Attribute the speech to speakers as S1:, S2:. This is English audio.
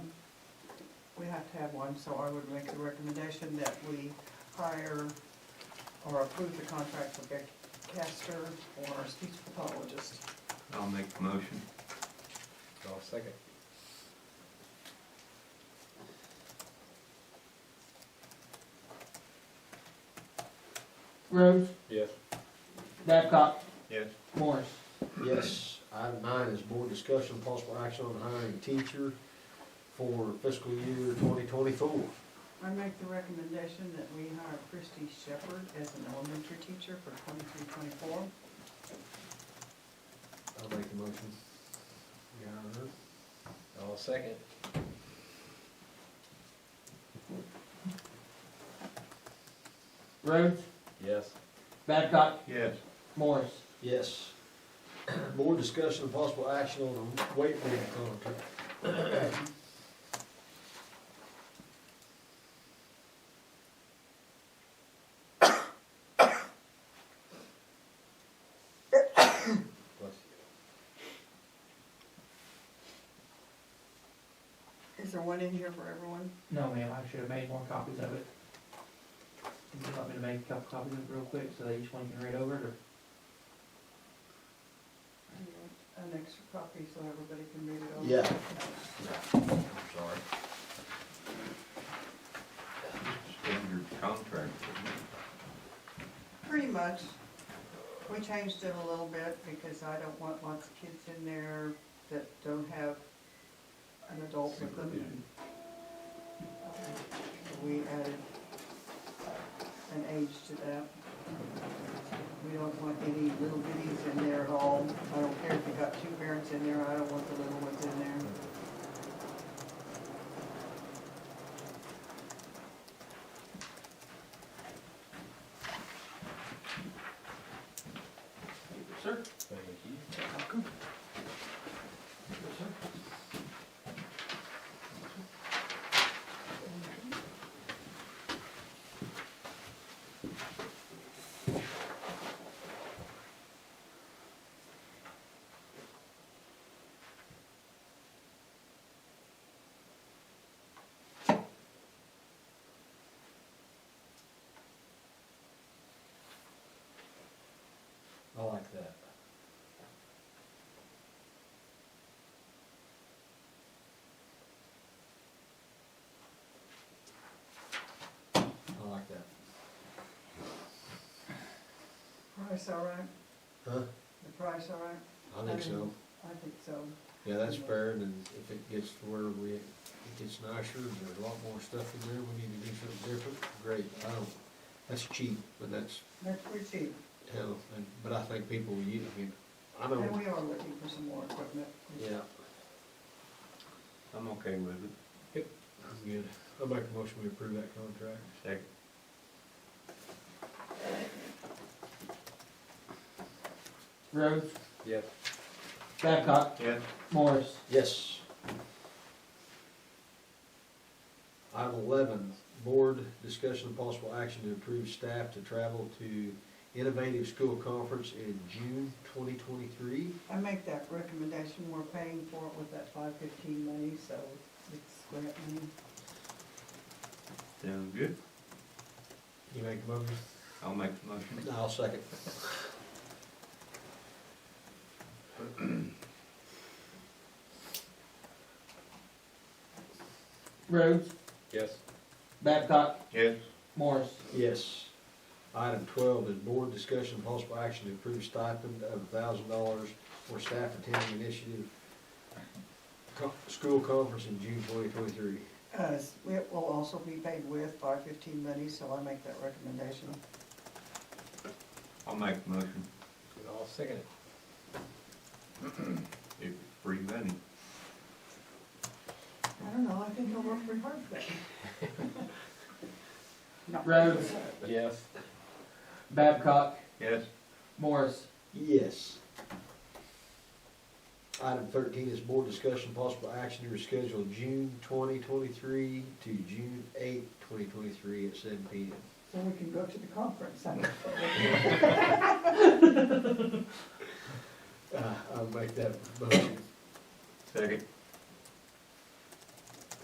S1: have to have one, so I would make the recommendation that we hire or approve the contract for Beck Castor for our speech pathologist.
S2: I'll make the motion.
S3: I'll second.
S4: Rhodes,
S3: Yes.
S4: Babcock,
S2: Yes.
S4: Morris.
S5: Yes, item nine is board discussion, possible action on hiring teacher for fiscal year twenty twenty-four.
S1: I make the recommendation that we hire Christy Shepherd as an elementary teacher for twenty-three, twenty-four.
S5: I'll make the motion. You got her?
S3: I'll second.
S4: Rhodes,
S3: Yes.
S4: Babcock,
S2: Yes.
S4: Morris.
S5: Yes. Board discussion, possible action on the weight room contract. Bless
S1: Is there one in here for everyone?
S4: No, ma'am, I should have made more copies of it. Would you want me to make a couple copies of it real quick so that each one can read over it, or?
S1: An extra copy so everybody can read it
S5: you.
S1: over.
S5: Yeah. I'm sorry.
S2: Standard contract.
S1: Pretty much. We changed it a little bit because I don't want lots of kids in there that don't have an adult with them.
S2: Supervision.
S1: We added an age to that. We don't want any little bitties in there at all. I don't care if you got two parents in there, I don't want the little ones in there.
S4: Sir?
S3: Thank you.
S5: I like that. I like that.
S1: Price all right?
S5: Huh?
S1: The price all right?
S5: I think so.
S1: I think so.
S5: Yeah, that's fair, and then if it gets to where we, it gets nicer, and there's a lot more stuff in there, we need to do something different, great, I don't, that's cheap, but that's,
S1: That's pretty cheap.
S5: hell, and, but I think people, you, I mean, I
S1: And
S5: don't,
S1: we are looking for some more equipment.
S5: yeah,
S2: I'm okay with it.
S5: I'm good. I'll make a motion, we approve that contract.
S2: Second.
S4: Rhodes,
S3: Yes.
S4: Babcock,
S2: Yes.
S4: Morris.
S5: Yes. Item eleven, board discussion of possible action to approve staff to travel to Innovative School Conference in June twenty twenty-three.
S1: I make that recommendation, we're paying for it with that five fifteen money, so it's grant money.
S2: Sound good?
S5: You make a motion?
S2: I'll make the motion.
S5: I'll second.
S4: Rhodes,
S3: Yes.
S4: Babcock,
S2: Yes.
S4: Morris.
S5: Yes. Item twelve is board discussion and possible action to approve stipend of thousand dollars for staff attending initiative co- school conference in June twenty twenty-three.
S1: Uh, it will also be paid with five fifteen money, so I make that recommendation.
S2: I'll make the motion.
S3: And I'll second it.
S2: If it's free money.
S1: I don't know, I think I'll work pretty hard for that. Not-
S4: Rhodes.
S3: Yes.
S4: Babcock,
S2: Yes.
S4: Morris.
S5: Yes. Item thirteen is board discussion and possible action to reschedule June twenty twenty-three to June eighth, twenty twenty-three at seven P M.
S1: So we can go to the conference.
S5: Uh, I'll make that motion.
S2: Second.